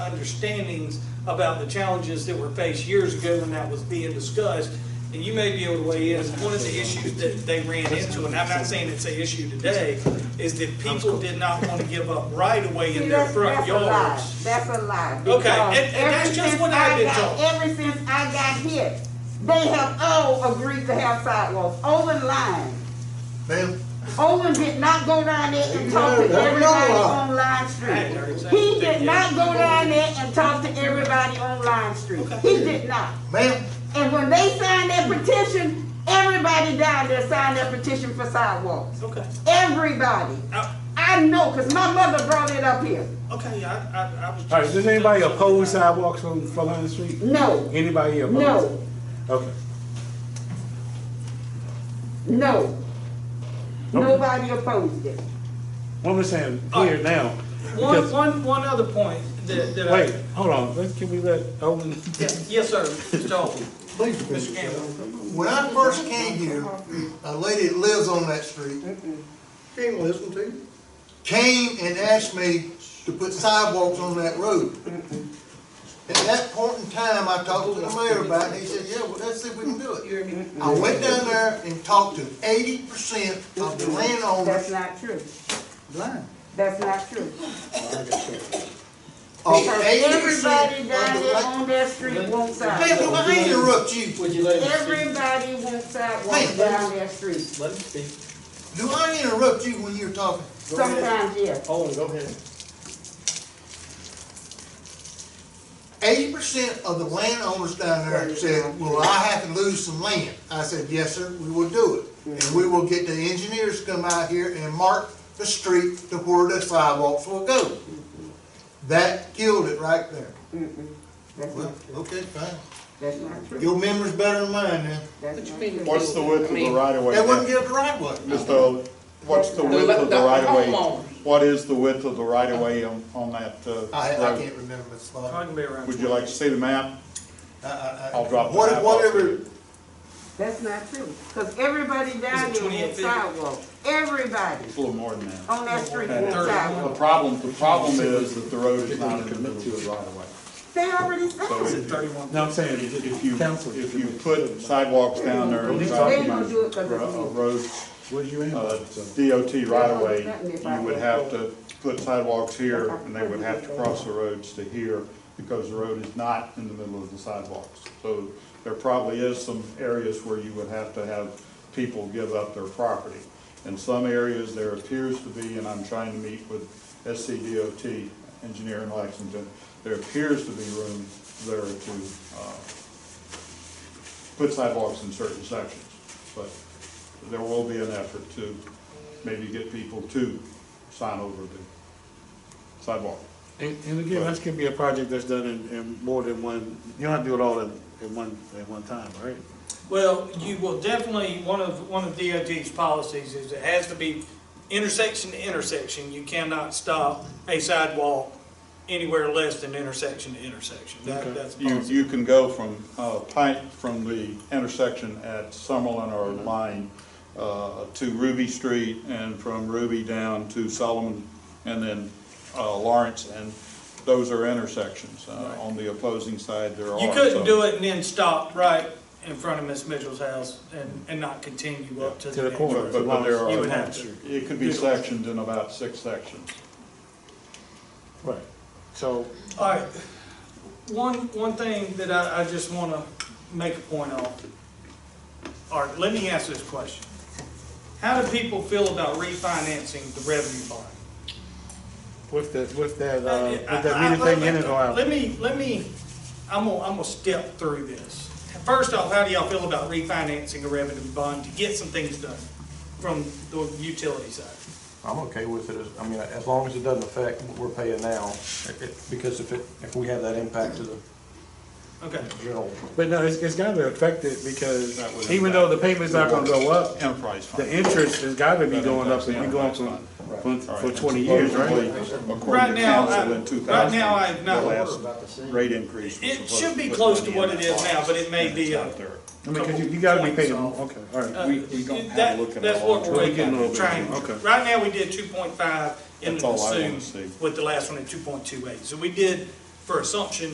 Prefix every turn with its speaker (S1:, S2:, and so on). S1: understandings about the challenges that were faced years ago when that was being discussed. And you may be able to weigh in, one of the issues that they ran into, and I'm not saying it's an issue today, is that people did not want to give up right of way in
S2: See,
S1: their
S2: that's-
S1: front
S2: that's a lie.
S1: yards.
S2: That's a lie.
S1: Okay,
S2: because
S1: and- and that's
S2: ever
S1: just
S2: since
S1: what I've
S2: I
S1: been
S2: got-
S1: told.
S2: Ever since I got here, they have all agreed to have sidewalks. Olin lied.
S3: Ma'am,
S2: Olin did not go down there and talk to
S3: Yeah, that's
S2: everybody
S3: a lie.
S2: on Line
S1: I heard
S2: Street.
S1: that.
S2: He did not go down there and talk to everybody on Line Street. He did not.
S3: ma'am,
S2: And when they signed their petition, everybody down there signed their petition for sidewalks.
S1: Okay,
S2: Everybody.
S1: I-
S2: I know, cause my mother brought it up here.
S1: okay, I, I, I was.
S4: All right,
S1: just-
S4: does anybody oppose sidewalks on Flatiron Street?
S2: No,
S4: Anybody oppose?
S2: No.
S4: Okay.
S2: no.
S4: Okay.
S2: Nobody opposed it.
S4: What I'm saying
S1: All
S4: here
S1: right. Uh,
S4: now,
S1: One,
S4: because,
S1: one, one other point that, that I.
S4: wait, hold on, let's, can we let Owen?
S1: Yes, yes, sir, Mr. Oldham.
S3: please,
S1: Mr. Campbell.
S3: when I first came here, a lady that lives on that street
S5: Can't listen to you.
S3: came and asked me to put sidewalks on that road. At that point in time, I talked to the mayor about it, and he said, yeah, well, let's see if we can do it. I went down there and talked to eighty percent of the
S2: That's
S3: landowners
S2: not true. That's not true.
S3: of
S2: Because
S3: eighty
S2: everybody
S3: percent
S2: down
S3: of
S2: there
S3: the.
S2: on that street wants sidewalks.
S3: Ma'am, I interrupt you.
S5: Would you let
S2: Everybody wants sidewalks
S3: Hey.
S2: down their street.
S5: Let him speak.
S3: Do I interrupt you when you're talking?
S2: Sometimes, yes.
S5: Owen, go ahead.
S3: eighty percent of the landowners down there said, well, I have to lose some land. I said, yes, sir, we will do it. And we will get the engineers to come out here and mark the street to where the sidewalks will go. That killed it right there.
S2: That's
S3: Well,
S2: not true.
S3: okay, fine.
S2: That's not true.
S3: Your memory's better than mine now.
S2: That's not true.
S6: What's the width of the right of way?
S3: They wouldn't give the right of way.
S6: Mr. Owen, what's the width of the right of way? What is the width of the right of way on, on that, uh,
S3: I, I
S6: road?
S3: can't remember the
S1: I
S3: spot.
S1: can be around.
S6: Would you like to see the map?
S3: I- I- I-
S6: I'll drop the
S3: what-
S6: map off.
S3: Whatever,
S2: That's not true. Cause everybody down
S1: Is it
S2: there
S1: 28
S2: wants
S1: feet?
S2: sidewalks. Everybody
S6: It's a little more than that.
S2: on that street
S6: Okay.
S2: wants
S6: The
S2: sidewalks.
S6: problem, the problem is that the road is not in the middle of the right of way.
S2: They already said
S6: So
S2: it.
S6: if
S1: Thirty-one.
S4: No, I'm saying,
S6: if you,
S4: Council.
S6: if you put sidewalks down there, uh,
S4: They
S6: it's
S2: gonna
S6: not
S2: do it 'cause it's
S6: ro-
S2: new.
S6: a road,
S4: What do you
S6: uh,
S4: have?
S6: DOT right of way, you would have to put sidewalks here and they would have to cross the roads to here because the road is not in the middle of the sidewalks. So there probably is some areas where you would have to have people give up their property. In some areas, there appears to be, and I'm trying to meet with SCDOT engineer in Lexington, there appears to be room there to, uh, put sidewalks in certain sections. But there will be an effort to maybe get people to sign over the sidewalk.
S4: And, and again, that can be a project that's done in, in more than one, you don't have to do it all in, in one, at one time, right?
S1: Well, you will definitely, one of, one of DOT's policies is it has to be intersection to intersection. You cannot stop a sidewalk anywhere less than intersection to intersection. That,
S4: Okay.
S1: that's
S6: You,
S1: policy.
S6: you can go from, uh, Pike, from the intersection at Summerlin or Line, uh, to Ruby Street and from Ruby down to Solomon and then, uh, Lawrence and those are intersections. Uh, on the opposing side, there are
S1: You couldn't
S6: some.
S1: do it and then stop right in front of Miss Mitchell's house and, and not continue up to
S4: To
S1: the
S4: the
S1: next.
S4: corner.
S6: But, but there
S1: You would
S6: are,
S1: have to.
S6: it could be sectioned in about six sections.
S4: Right. So,
S1: All right, one, one thing that I, I just want to make a point on. All right, let me ask this question. How do people feel about refinancing the revenue bond?
S4: with that, with that, uh, with
S1: I- I-
S4: that meeting
S1: I-
S4: thing in it or out?
S1: Let me, let me, I'm gonna, I'm gonna step through this. First off, how do y'all feel about refinancing a revenue bond to get some things done from the utility side?
S7: I'm okay with it, as- I mean, as long as it doesn't affect what we're paying now, It- it- because if it, if we have that impact to the
S1: Okay,
S7: general.
S4: But no, it's, it's gotta be affected because
S6: That would
S4: even though the payment's not gonna go up,
S6: Enterprise fund.
S4: the interest has gotta be going up, so you're going from, from, for twenty years, right?
S1: right now, I- right now, I have not.
S6: Rate increase. was
S1: It
S6: supposed
S1: should be
S6: put
S1: close to
S6: money in
S1: what
S6: that
S1: it is
S6: box,
S1: now, but it may
S6: and
S1: be
S6: it's
S1: a-
S6: not there.
S4: I mean, cause you, you gotta be paying, more. okay, all right.
S1: Uh,
S6: We- we don't have a
S1: that-
S6: look at
S1: That's
S6: our
S1: what
S6: long-term
S1: we're
S4: plan.
S1: waiting, trying,
S4: Okay.
S1: right now, we did two point five in
S6: That's
S1: the
S6: all I wanna
S1: assumed
S6: see.
S1: with the last one at two point two eight. So we did for assumption